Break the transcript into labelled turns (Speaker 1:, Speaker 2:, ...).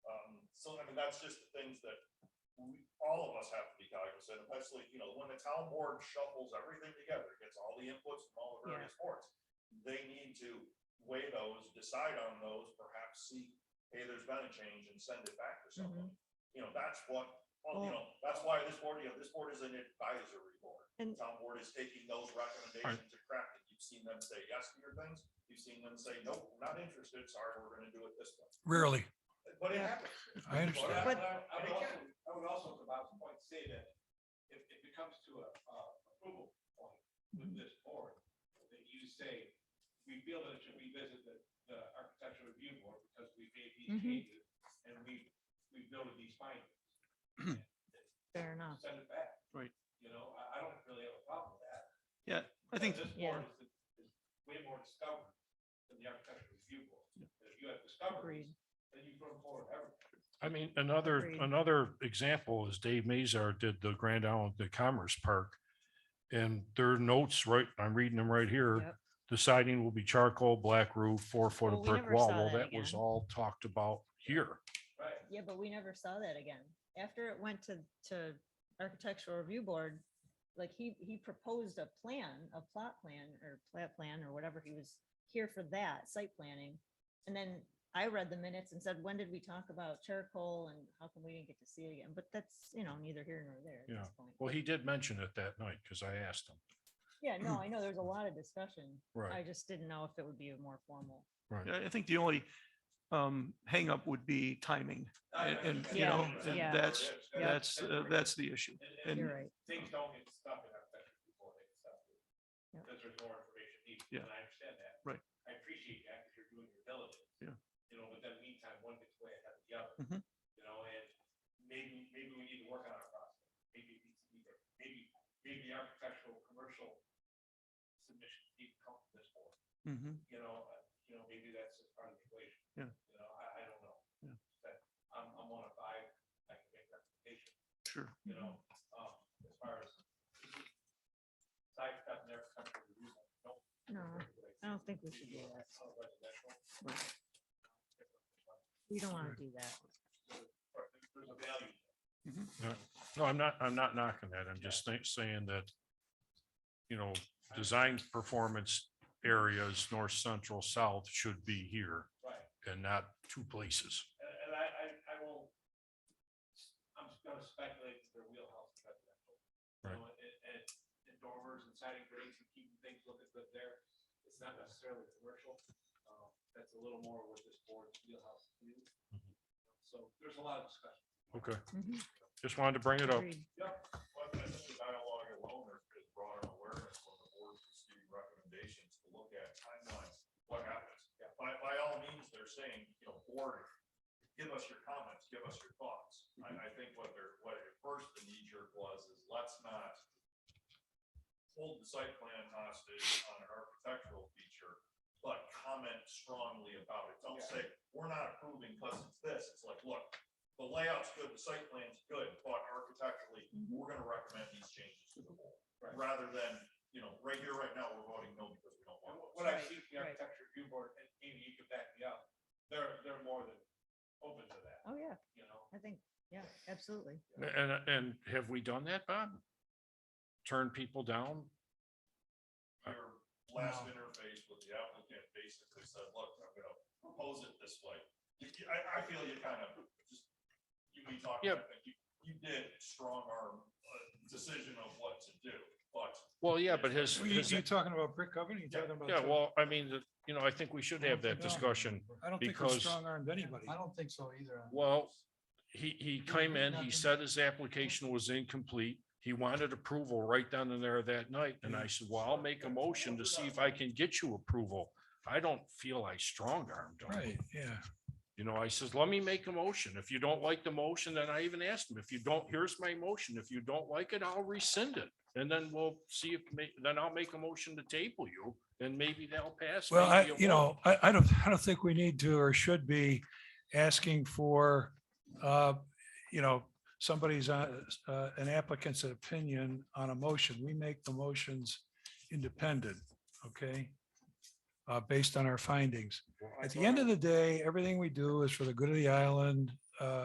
Speaker 1: Um, that's just the things that we, all of us have to be cognizant, of. That's like you know, when the town board shuffles everything together, gets all the inputs from all the various boards. They need to weigh those, decide on those, perhaps see, hey, there's been a change and send it back to
Speaker 2: Mm-hmm.
Speaker 1: someone. You know, that's what, well, you know, that's why this board, you know, this board is an advisory board.
Speaker 2: And-
Speaker 1: Town board is taking those recommendations and crafting. You've seen them say yes to your things. You've seen them say, nope, not interested. Sorry, we're gonna do it this way.
Speaker 3: Rarely.
Speaker 1: But it
Speaker 2: Yeah.
Speaker 1: happens.
Speaker 3: I understand.
Speaker 2: But-
Speaker 1: And
Speaker 4: I would
Speaker 1: it
Speaker 4: also,
Speaker 1: can-
Speaker 4: I would also, to Bob's point, say that if, if it comes to a, uh, approval point with this board, that you say, we feel that it should revisit the, the architectural review board because we made these
Speaker 2: Mhm.
Speaker 4: changes and we, we noted these findings.
Speaker 2: Fair enough.
Speaker 4: Send it back.
Speaker 5: Right.
Speaker 4: You know, I, I don't really have a problem with that.
Speaker 5: Yeah, I think-
Speaker 4: Because This
Speaker 2: Yeah.
Speaker 4: board is, is way more discovered than the architectural review board. And if you have discoveries,
Speaker 2: Agreed.
Speaker 4: then you bring forward everything.
Speaker 3: I mean, another,
Speaker 2: Agreed.
Speaker 3: another example is Dave Mazar did the Grand Island, the Commerce Park. And their notes, right, I'm reading them right here.
Speaker 2: Yep.
Speaker 3: The siding will be charcoal, black roof, four foot
Speaker 2: Well,
Speaker 3: of
Speaker 2: we
Speaker 3: brick
Speaker 2: never
Speaker 3: wall.
Speaker 2: saw
Speaker 3: Well, that
Speaker 2: that
Speaker 3: was
Speaker 2: again.
Speaker 3: all talked about here.
Speaker 4: Right.
Speaker 2: Yeah, but we never saw that again. After it went to, to architectural review board, like he, he proposed a plan, a plot plan or plat plan or whatever. He was here for that site planning. And then I read the minutes and said, when did we talk about charcoal and how come we didn't get to see it again? But that's, you know, neither here nor there at
Speaker 3: Yeah.
Speaker 2: this point.
Speaker 3: Well, he did mention it that night because I asked him.
Speaker 2: Yeah, no, I know there's a lot of discussion. I
Speaker 3: Right,
Speaker 2: just didn't know if it would be a more formal.
Speaker 3: right.
Speaker 5: I I think the only um, hangup would be timing. And- and,
Speaker 2: you know, and Yeah.
Speaker 5: that's-
Speaker 2: Yeah.
Speaker 5: That's, uh, that's the issue.
Speaker 4: And
Speaker 2: You're
Speaker 5: And
Speaker 2: right.
Speaker 4: things
Speaker 5: Oh.
Speaker 4: don't get stuck in our section before they get stuck.
Speaker 2: Yeah.
Speaker 4: Because there's more information needed.
Speaker 5: Yeah.
Speaker 4: And I understand that.
Speaker 5: Right.
Speaker 4: I appreciate that because you're doing your diligence.
Speaker 5: Yeah.
Speaker 4: You know, but then meantime, one gets way ahead of the other.
Speaker 5: Mhm.
Speaker 4: You know, and maybe, maybe we need to work on our process. Maybe, it needs to be there. maybe, maybe the architectural, commercial submission need to come from this board.
Speaker 5: mhm,
Speaker 4: You know, uh, you know, maybe that's just part of the equation.
Speaker 5: Yeah.
Speaker 4: You know, I, I don't know.
Speaker 5: Yeah.
Speaker 4: But I'm, I'm one of five, I can make recommendations
Speaker 5: sure.
Speaker 4: you know, um, as far as sidestep never comes to the roof, don't.
Speaker 2: No, I don't think we should do that. We don't want to do that.
Speaker 4: There's a value.
Speaker 3: No, I'm not, I'm not knocking that. I'm just think- saying that, you know, design performance areas, north, central, south should be here.
Speaker 4: Right,
Speaker 3: and not two places.
Speaker 4: and, and I, I, I will, I'm just gonna speculate that their wheelhouse is residential. You
Speaker 3: Right.
Speaker 4: know, And, and, and dormers and siding grates and keeping things looking good there, it's not necessarily commercial, uh, that's a little more what this board's wheelhouse is.
Speaker 3: Mhm.
Speaker 4: So there's a lot of discussion.
Speaker 3: Okay, just wanted to bring it up.
Speaker 2: Mm-hmm. Agreed.
Speaker 1: But I think the dialogue alone is is broader awareness when the board's receiving recommendations to look at timelines, what happens. By, by all means, they're saying, you know, board, give us your comments, give us your thoughts. I, I think what they're, what at first the knee jerk was is let's not hold the site plan hostage on an architectural feature, but comment strongly about it. Don't say, we're not approving because it's this. It's like, look, the layout's good, the site plan's good, but architecturally, we're gonna recommend these changes to the board.
Speaker 4: Mm-hmm. Right.
Speaker 1: Rather than, you know, right here, right now, we're voting no because we don't
Speaker 4: And
Speaker 1: want. it.
Speaker 4: what- What I
Speaker 2: Right,
Speaker 4: see from the
Speaker 2: right.
Speaker 4: architecture review board, and Amy, you can back me up, they're, they're more than open to that,
Speaker 2: Oh, yeah,
Speaker 4: you know?
Speaker 2: I think, yeah, absolutely.
Speaker 3: And, and have we done that, Bob? Turn people down?
Speaker 1: Your last interface with the applicant basically said, look, I'm gonna propose it this way. You- you- I, I feel you kind of just, you be talking, I
Speaker 3: Yep.
Speaker 1: think you, you did strong arm a decision of what to do, but
Speaker 3: Well, yeah, but his,
Speaker 6: Well, You,
Speaker 3: his-
Speaker 6: you talking about brick oven? You talking about?
Speaker 3: yeah,
Speaker 6: the-
Speaker 3: well, I mean, the- you know, I think we should have that discussion.
Speaker 6: I don't think we
Speaker 3: because-
Speaker 6: strong armed anybody.
Speaker 7: I don't think so either.
Speaker 3: Well, he, he came in, he
Speaker 7: nothing.
Speaker 3: said his application was incomplete. He wanted approval right down in there that night. And I said, well, I'll make a motion to see if I can get you approval. I don't feel I strong armed.
Speaker 6: Right, yeah.
Speaker 3: You know, I says, let me make a motion. If you don't like the motion, then I even asked him, if you don't, here's my motion. If you don't like it, I'll rescind it. And then we'll see if, ma- then I'll make a motion to table you and maybe that'll pass.
Speaker 6: Well, I,
Speaker 3: maybe it
Speaker 6: you
Speaker 3: won't.
Speaker 6: know, I, I don't, I don't think we need to or should be asking for, uh, you know, somebody's, uh, uh, an applicant's opinion on a motion. We make the motions independent, okay? Uh, based on our findings.
Speaker 3: Well, I
Speaker 6: At the
Speaker 3: thought
Speaker 6: end
Speaker 3: I-
Speaker 6: of the day, everything we do is for the good of the island uh,